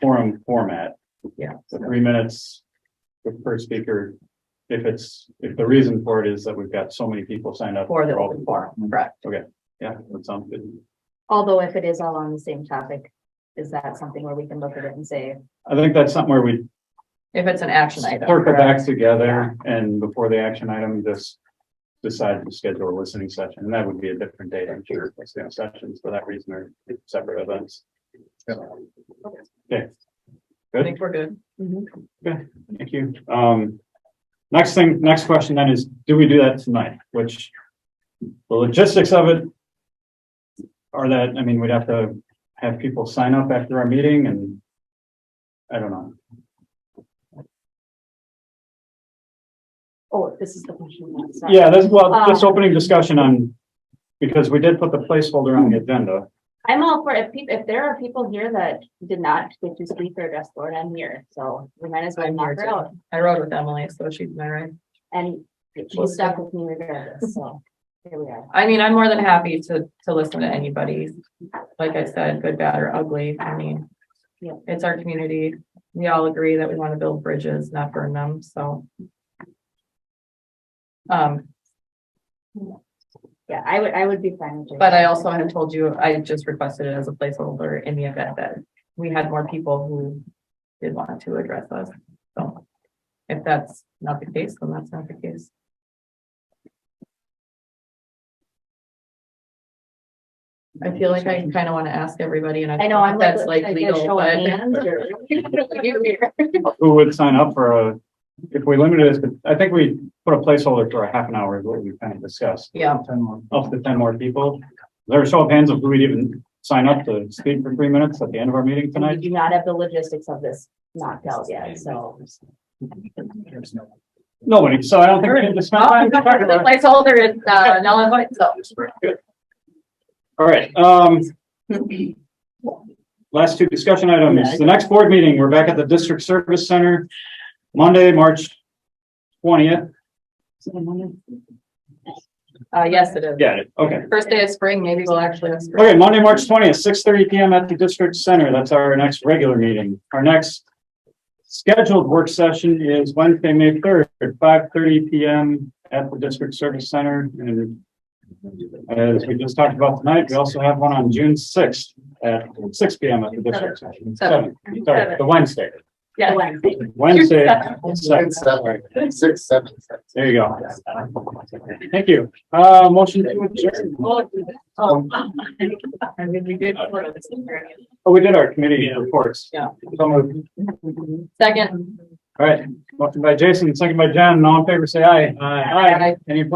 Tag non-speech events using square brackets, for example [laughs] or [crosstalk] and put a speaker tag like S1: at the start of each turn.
S1: forum format.
S2: Yeah.
S1: So three minutes per speaker. If it's, if the reason for it is that we've got so many people signed up.
S2: For the
S1: all- Mm-hmm.
S2: open forum, correct?
S1: Yeah, that sounds good.
S3: Although if it is all on the same topic, is that something where we can look at it and say,
S1: I think that's something where we
S2: If it's an action item.
S1: circle
S2: correct?
S1: back together and before the action item, just decide to schedule a listening session. And that would be a different date, I'm sure, listening sessions for that reason are separate events.
S2: I think we're good.
S3: Mm-hmm.
S1: Thank you. Um, next thing, next question then is, do we do that tonight? Which the logistics of it are that, I mean, we'd have to have people sign up after our meeting and I don't know.
S3: oh, this is the question. that's not-
S1: Yeah, that's, well, just opening discussion on, because we did put the placeholder on the agenda.
S3: I'm all for, if people, if there are people here that did not get to speak or address the board, I'm here, so we might as well
S2: I'm here
S3: knock her
S2: too.
S3: out.
S2: I rode with Emily, so she's my ride.
S3: And she stuck with me regardless, so here we are.
S2: I mean, I'm more than happy to, to listen to anybody. Like I said, good, bad, or ugly. I mean,
S3: Yeah.
S2: it's our community. We all agree that we want to build bridges, not burn them, so. Um,
S3: Yeah, I would, I would be fine. with doing
S2: but I
S3: that.
S2: also had told you, I just requested it as a placeholder in the event that we had more people who did want to address us, so. If that's not the case, then that's not the case. I feel like I kind of want to ask everybody and I.
S3: I know, I'm like,
S2: That's
S3: like
S2: like
S3: a
S2: legal,
S3: show of
S2: but.
S3: hands
S2: [laughs]
S3: or- [laughs]
S1: Who would sign up for a, if we limited this, I think we put a placeholder for a half an hour, is what we kind of discussed.
S3: [laughs]
S2: Yeah,
S1: up to ten more people. There a show of hands if we'd even sign up to speak for three minutes at the end of our meeting
S3: And We
S1: tonight.
S3: do not have the logistics of this knocked out yet, so.
S1: Nobody, so I don't think we can just spend
S2: the
S1: time.
S2: placeholder is, uh, null and void, so.
S1: All right, um. Last two discussion items. The next board meeting, we're back at the District Service Center, Monday, March twentieth.
S2: Uh, yes, it is.
S1: Got it, okay.
S2: First day of spring, maybe we'll actually have spring.
S1: Okay, Monday, March twentieth, six thirty P M at the district center. That's our next regular meeting. Our next scheduled work session is Wednesday, May third, at five thirty P M at the district service center. And as we just talked about tonight, we also have one on June sixth at six P M at the district session.
S2: Seven.
S1: Seven, Sorry, the Wednesday,
S2: Yeah.
S1: Wednesday.
S2: Seven.
S1: seven.
S4: Seven, six, seven, seven.
S1: There you go. Thank you. Uh, motion to adjourn.
S2: Oh. I mean, we did.
S1: Oh, we did our committee reports.
S2: Yeah.
S1: So moved.
S2: Second.
S1: All right, motion by Jason, second by John, all in favor, say aye. Aye. Any opposed?